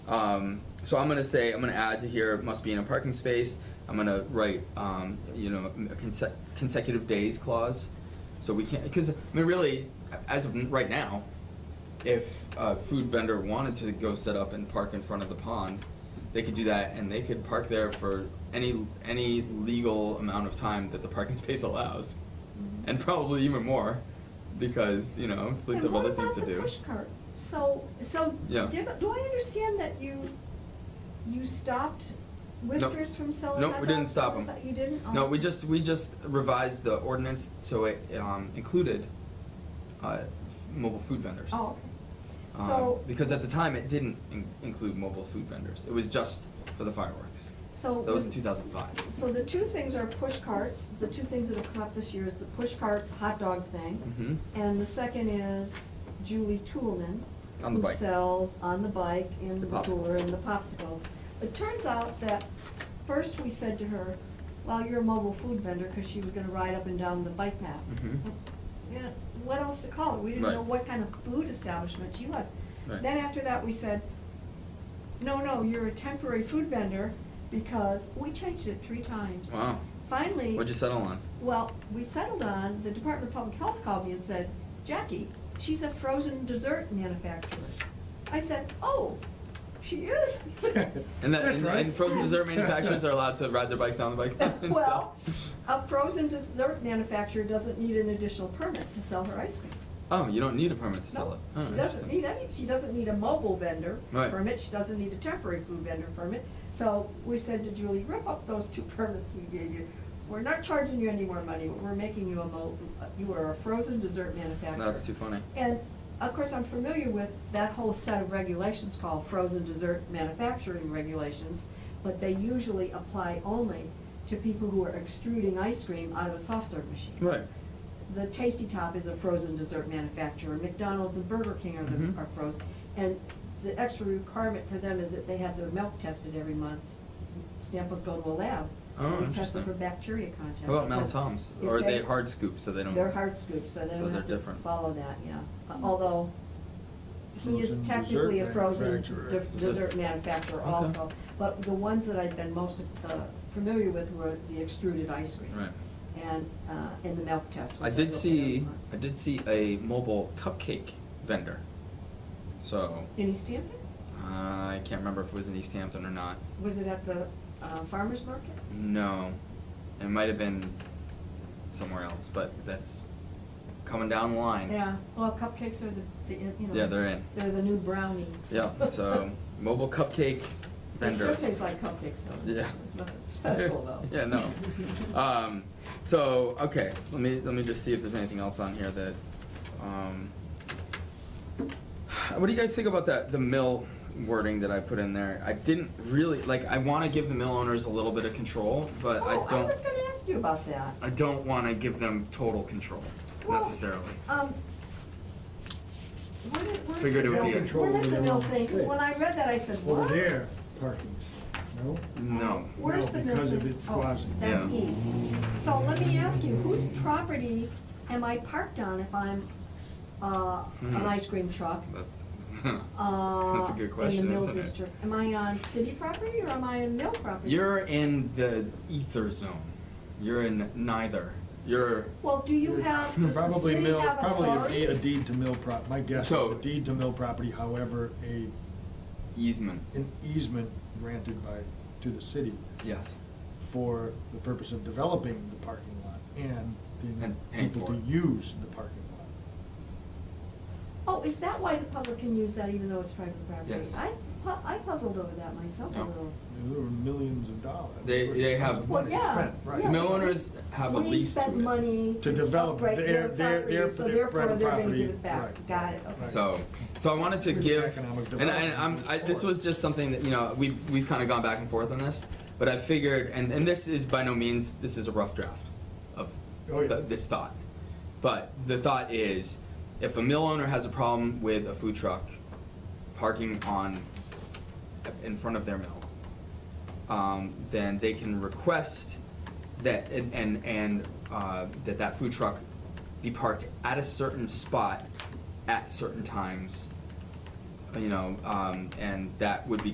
Um, so I'm gonna say, I'm gonna add to here, must be in a parking space. I'm gonna write, um, you know, a conse- consecutive days clause. So we can't, because, I mean, really, as of right now, if a food vendor wanted to go set up and park in front of the pond, they could do that and they could park there for any, any legal amount of time that the parking space allows. And probably even more, because, you know, police have other things to do. And what about the push cart? So, so, Yeah. did- do I understand that you, you stopped Whiskers from selling No, hot we didn't dogs? stop Was them. that- You didn't? Oh. No, we just, we just revised the ordinance so it, um, included, uh, mobile food vendors. Oh, okay. Um, So. Because at the time, it didn't in- include mobile food vendors, it was just for the fireworks. So That was we- in two thousand five. So the two things are push carts, the two things that have come up this year is the push cart hot dog Mm-hmm. thing. Mhm. And the second is Julie Toolman. On the bike. Who sells on the bike in The the cooler popsicles. and the popsicles. It turns out that first we said to her, well, you're a mobile food vendor, because she was gonna ride up and down the bike path. Mhm. Yeah, what else to call it? We didn't Right. know what kind of food establishment she was. Right. Then after that, we said, no, no, you're a temporary food vendor, because we changed it three times. Wow. Finally. What'd you settle on? Well, we settled on, the Department of Public Health called me and said, Jackie, she's a frozen dessert manufacturer. I said, oh, she is? And that, That's and, right. and frozen dessert manufacturers are allowed to ride their bikes down the bike path and Well, sell. a frozen dessert manufacturer doesn't need an additional permit to sell her ice cream. Oh, you don't need a permit to sell No, it. Oh, she doesn't interesting. need any, she doesn't need a mobile vendor Right. permit, she doesn't need a temporary food vendor permit. So we said to Julie, rip up those two permits we gave you. We're not charging you any more money, we're making you a mo, you are a frozen dessert manufacturer. That's too funny. And of course, I'm familiar with that whole set of regulations called frozen dessert manufacturing regulations, but they usually apply only to people who are extruding ice cream out of a soft serve machine Right. the Tasty Top is a frozen dessert manufacturer, McDonald's and Burger King are Mhm. the, are frozen. And the extra requirement for them is that they have their milk tested every month. Samples go to a lab. Oh, and They test interesting. them for bacteria content. How about Mel because Toms? if Or are they hard scoop, so they don't? They're hard scoops, so they so don't they're have to different. Hmm. follow that, yeah. Uh, Although, he is Frozen dessert technically a frozen manufacturer. de- dessert manufacturer Okay. also. But the ones that I've been most uh, familiar with were the extruded ice cream. Right. And, uh, and the milk test. I which did looked at see, online. I did see a mobile cupcake vendor. So, In East Hampton? uh, I can't remember if it was in East Hampton or not. Was it at the uh, farmer's market? No, it might have been somewhere else, but that's coming down the line. Yeah, well, cupcakes are the, the, you know. Yeah, they're in. They're the new brownie. Yeah, so mobile cupcake They vendor. still taste like cupcakes though. Yeah. Nothing special though. Yeah, no. Um, so, okay, let me, let me just see if there's anything else on here that, um, what do you guys think about that, the mill wording that I put in there? I didn't really, like, I wanna give the mill owners a little bit of control, but I Oh, I don't, was gonna ask you about that. I don't wanna give them total control Well, necessarily. Um, where did, where is Figured the it would mill- be a- Where is the mill thing? Because Control when I read that, I said, what? Over there, parking, no? No. Where's No, the mill because thing? of its Oh, quasi. That's Yeah. E. So let me ask you, whose property am I parked on if I'm, uh, an Hmm. ice cream truck? That's, um, uh, that's a good question, In the mill isn't it? district. Am I on city property or am I on mill property? You're in the ether zone. You're in neither. You're Well, do you have, does the Probably city mill, have a probably a card? deed- a deed to mill prop, my guess is So- a deed to mill property, however, a, easement. an easement granted by, to the city Yes. for the purpose of developing the parking lot and the And paying people for to it. use the parking lot. Oh, is that why the public can use that even though it's private property? Yes. I, pu- I puzzled over that myself a No. little. There were millions of dollars. They- they have- Well, yeah, Spent, yeah. right. Mill owners have a lease to We it. spend money To to develop upgrade their their- their- property, their- so their therefore private they're gonna property, give it back. right. Got it, okay. So, so I wanted to With give, economic and I, and development I'm, I, this support. was just something that, you know, we've, we've kinda gone back and forth on this, but I figured, and, and this is by no means, this is a rough draft of Oh, yeah. th- this thought. But the thought is, if a mill owner has a problem with a food truck parking on, in front of their mill, um, then they can request that, and, and, and, uh, that that food truck be parked at a certain spot at certain times, you know, um, and that would be